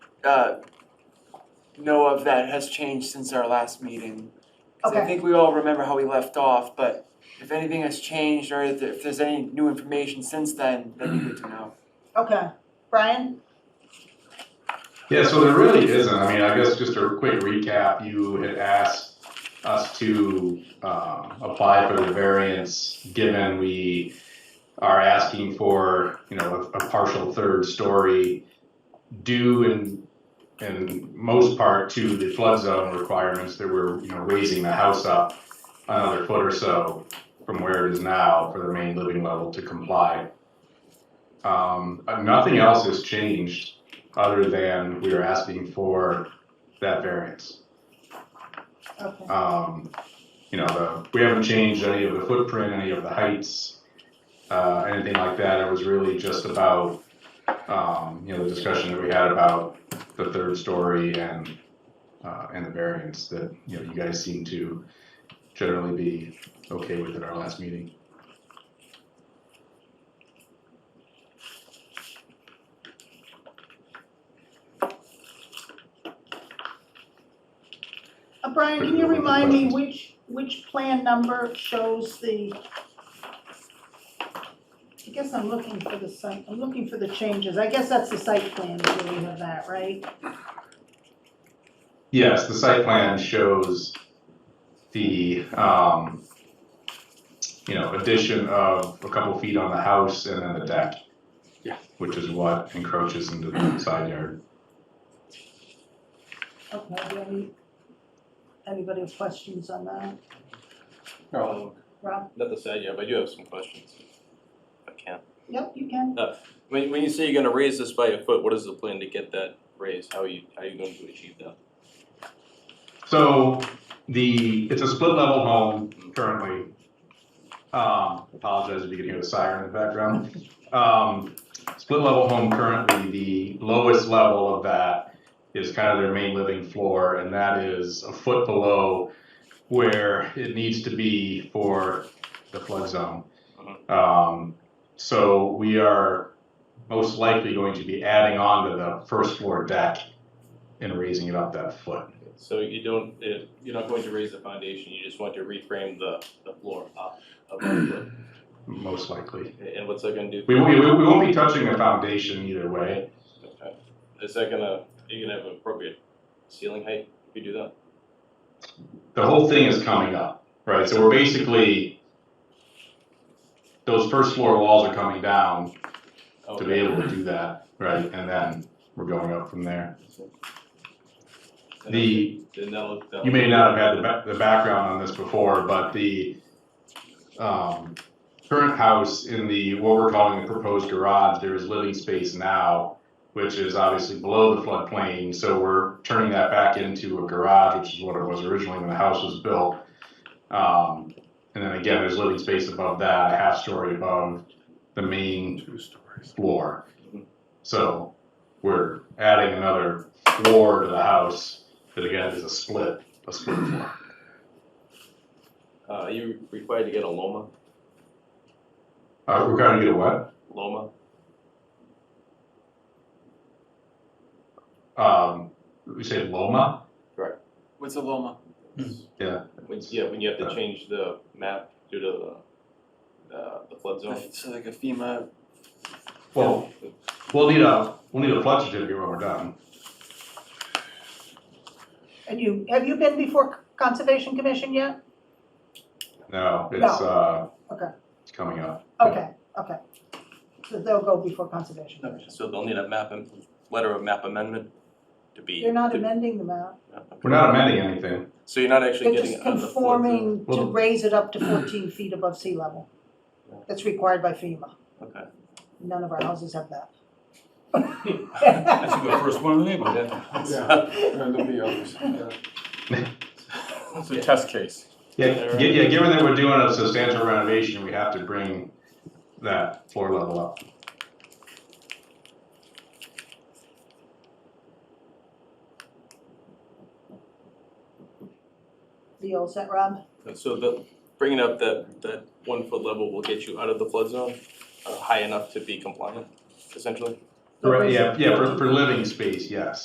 uh, know of that has changed since our last meeting. 'Cause I Okay. think we all remember how we left off, but if anything has changed or if if there's any new information since then, that'd be good to know. Okay, Brian? Yeah, so there really isn't. I mean, I guess just a quick recap, you had asked us to um, apply for the variance, given we are asking for, you know, a a partial third story due in, in most part to the flood zone requirements that we're, you know, raising the house up another foot or so from where it is now for the main living level to comply. Um, uh, Nothing else has changed other than we are asking for that variance. Okay. Um, you know, the, we haven't changed any of the footprint, any of the heights, uh, anything like that. It was really just about, um, you know, the discussion that we had about the third story and, uh, and the variance that, you know, you guys seem to generally be okay with at our last meeting. Uh, Brian, can you remind me which, which plan number shows the? I guess I'm looking for the site, I'm looking for the changes, I guess that's the site plan, where we have that, right? Yes, the site plan shows the, um, you know, addition of a couple feet on the house and then the deck. Yeah. Which is what encroaches into the side yard. Okay, do you have any, anybody have questions on that, Um, Rob? Not the side yet, but I do have some questions. If I can. Yep, you can, When, when you say you're gonna raise this by a foot, what is the plan to get that raised? How are you, how are you going to achieve that? So the, it's a split level home currently. Um, apologize if you can hear the siren in the background. Um, split level home currently, the lowest level of that is kind of their main living floor, and that is a foot below where it needs to be for the flood zone. Um, so we are most likely going to be adding on to the first floor deck and raising it up that foot. So you don't, it- you're not going to raise the foundation, you just want to reframe the, the floor up above the, Most likely. and what's that gonna do? We, we, we won't be touching the foundation either way. Okay. Is that gonna, are you gonna have an appropriate ceiling height if you do that? The whole thing is coming up, right? So we're basically, those first floor walls are coming down to be Okay. able to do that, right? And then we're going up from there. The, Then that'll, that'll. you may not have had the, ba- the background on this before, but the, um, current house in the, what we're calling the proposed garage, there is living space now, which is obviously below the floodplain, so we're turning that back into a garage, which is what it was originally when the house was built. Um, and then again, there's living space above that, a half story above the main Two stories. floor. Mhm. So we're adding another floor to the house that again is a split, a split floor. Uh, are you required to get a Loma, Uh, we're gonna get a what? Loma? Um, we say Loma? What's a Loma? Yeah. When, yeah, when you have Yeah. to change the map due to the, uh, the flood zone. So like a FEMA, Well, we'll need a, we'll need a flood certificate when we're done. and you, have you been before Conservation Commission yet? No, it's, No. uh, Okay. it's coming up. Okay, okay, so they'll go before Conservation Commission, So they'll need a map, am- letter of map amendment to be. you're not to- amending the map. We're not amending anything. So you're not They're actually getting just it on the flood zone. conforming to Well- raise it up to fourteen feet above sea level. That's required by FEMA. Okay. None of our houses have that. That's the first one in the neighborhood. Yeah. And there'll be others. It's a test case. Yeah, gi- yeah, given that we're doing a substantial renovation, we have to bring that floor level up. The old set, Rob? So the, bringing up that, that one foot level will get you out of the flood zone, uh, high enough to be compliant, essentially? Correct, yeah, yeah, for, for living space, yes.